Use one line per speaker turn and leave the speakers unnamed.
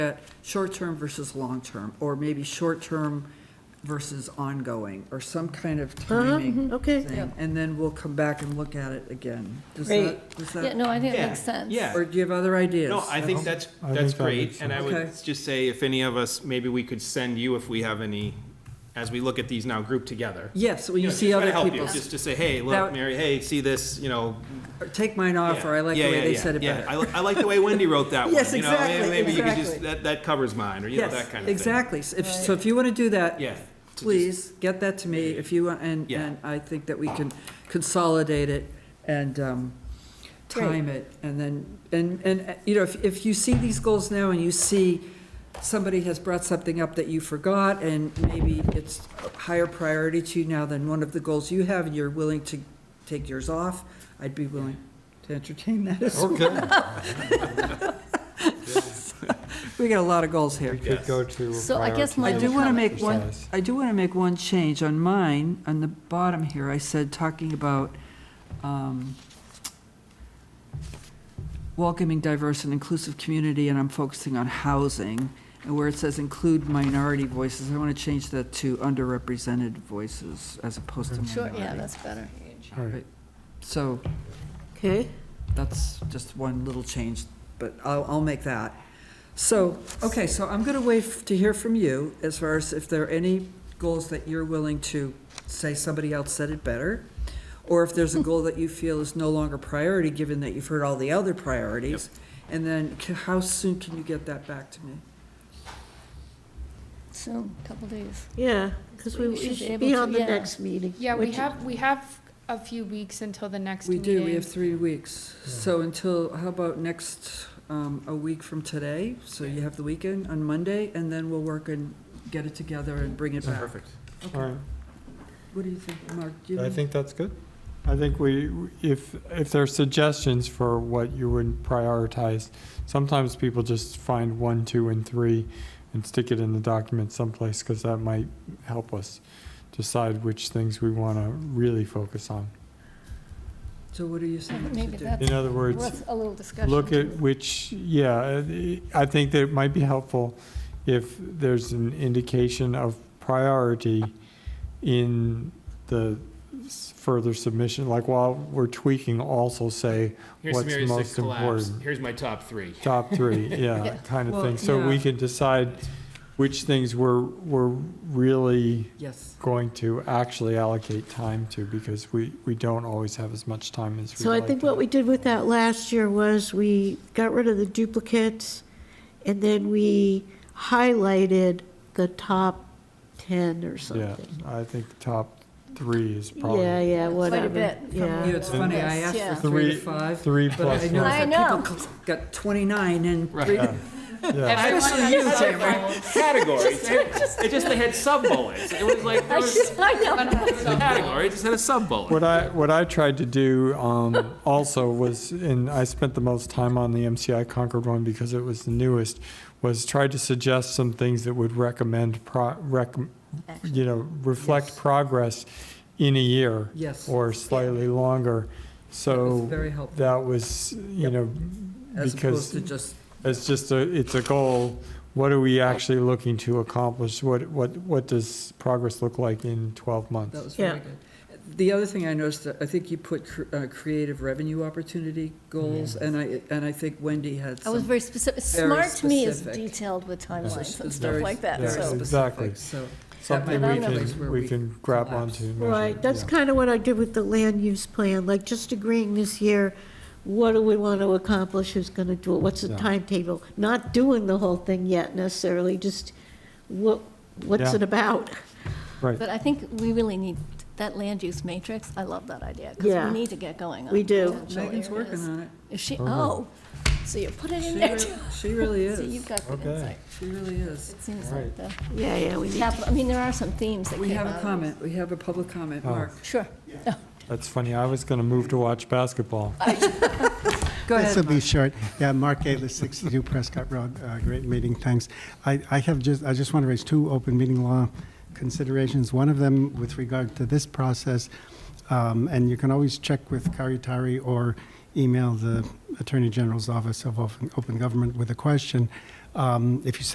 at short-term versus long-term, or maybe short-term versus ongoing, or some kind of
Uh-huh, mm-hmm,
timing
okay.
thing. And then we'll come back and look at it again. Does
Great.
that, does
Yeah,
that,
no, I think it
Yeah,
makes sense.
yeah.
or do you have other ideas? Uh-huh.
No, I think that's,
I
that's
think that
great,
makes
and I
sense.
would
Okay.
just say, if any of us, maybe we could send you if we have any, as we look at these now grouped together.
Yes, well,
know,
you
just
see
try to
other
help you,
people's,
Just to say, hey,
That-
look, Mary, hey, see this, you know.
Or take mine off, or I like the
yeah,
way
yeah,
they
yeah,
said it
yeah. I
better.
li- I like the way Wendy wrote that one.
Yes,
you know, may-
exactly,
Maybe you could
exactly.
just, that, that covers mine, or you know,
Yes,
that kind of thing.
Exactly. If- So if you want to do that.
Yeah. to just-
Please, get that to me if you, want, and,
Yeah.
and I think that we can consolidate it and um, time it. And then, and, and, uh, you know, if, if you see these goals now and you see somebody has brought something up that you forgot and maybe it's a higher priority to you now than one of the goals you have and you're willing to take yours off, I'd be willing to entertain that as well.
Okay,
We got a lot of goals here.
we could go to.
So I guess my
I do
little
want to
comment-
make one,
Exercise.
I do want to make one change on mine, on the bottom here, I said, talking about um, welcoming diverse and inclusive community, and I'm focusing on housing, and where it says include minority voices, I want to change that to underrepresented voices as opposed to
Sure, yeah,
minority.
that's better.
All right.
So
Okay,
that's just one little change, but I'll, I'll make that. So, okay, so I'm gonna wait f- to hear from you as far as if there are any goals that you're willing to say somebody else said it better, or if there's a goal that you feel is no longer priority, given that you've heard all the other priorities. And then, c- how soon can you get that back to me?
Soon, couple days.
yeah, because we
We should
we
be
should
able
be
to-
on the
yeah.
next meeting.
Yeah, we
which-
have, we have a few weeks until the next
We
meeting.
do, we have three weeks. So until, how about next, um, a week from today? So you have the weekend on Monday, and then we'll work and get it together and bring it back.
Perfect.
All right,
What do you think, Mark? Do you
I
have-
think that's good. I think we, if, if there are suggestions for what you would prioritize, sometimes people just find one, two, and three and stick it in the document someplace, because that might help us decide which things we want to really focus on.
So what are you saying we
Maybe
should do?
that's-
In other words,
Worth a little discussion.
look at
too.
which, yeah, uh, I think that it might be helpful if there's an indication of priority in the s- further submission, like while we're tweaking, also say
Here's
what's
Mary's six
most
collapse,
important.
here's my top three.
Top three, yeah, kind of
Well,
thing, so we
yeah.
can decide which things we're, we're really
Yes.
going to actually allocate time to, because we, we don't always have as much time as we'd
So I
like
think
to
what we did with that last year was we got rid of the duplicates, and then we highlighted the top 10 or
Yeah,
something.
I think the top three is probably.
Yeah, yeah,
Quite
whatever.
a bit from
You
Yeah.
know, it's funny, I
Yes, yeah.
asked for three to
Three-
five,
Three
but I
plus
know
one.
I
that people got 29 and
Right.
three.
Yeah, yeah.
Especially you, Tamara.
Categories, it just, they had sub-bullets, it was like, there
I
was
should- I know.
a category, it just had a sub-bullet.
What I, what I tried to do um, also was, and I spent the most time on the MCI Concord one because it was the newest, was try to suggest some things that would recommend, pro- rec, you know, reflect progress in a year.
Yes.
Or slightly longer. So
very helpful.
that was, you
Yep.
know,
As opposed
because
to just,
It's just a, it's a goal. What are we actually looking to accomplish? What, what, what does progress look like in 12
that
months?
was very
Yeah.
good. The other thing I noticed, that I think you put cr- uh, creative revenue opportunity goals, and I, and I think Wendy had
I was
some.
very specific.
very
Smart to me is
specific.
detailed with timelines and
It's
stuff
very-
like that,
very
Yeah.
so.
Exactly.
specific, So. that might
Something
be
we
a place where
can, we can grab
collapse.
onto. and measure.
Right, that's
Yeah.
kind of what I did with the land use plan, like just agreeing this year, what do we want to accomplish, who's going to do it, what's the
Yeah.
timetable? Not doing the whole thing yet necessarily, just what, what's
Yeah.
it about?
But I think we really need that land use matrix. I love that idea, because
Yeah.
we need to get going on.
We do. Uh-huh.
potential
Megan's working
areas.
on it.
Is she, oh, so you put it
She
in there
really-
too.
She really
So you've
is.
got good
Okay.
insight.
She really is.
It seems like
Alright.
the
Yeah, yeah, we need,
capital, I mean, there are some themes that
We
came
have
out
a
of
comment, we have a public comment,
Oh.
Mark.
this. Sure.
That's funny. I was going to move to watch basketball.
Go
This will
ahead,
be
Mark.
short. Yeah, Mark Ailes, 62 Prescott Road. Uh, Great meeting, thanks. I I have just, I just want to raise two open meeting law considerations. One of them with regard to this process, um, and you can always check with Karitari or email the Attorney General's Office of Open Open Government with a question. Um, If you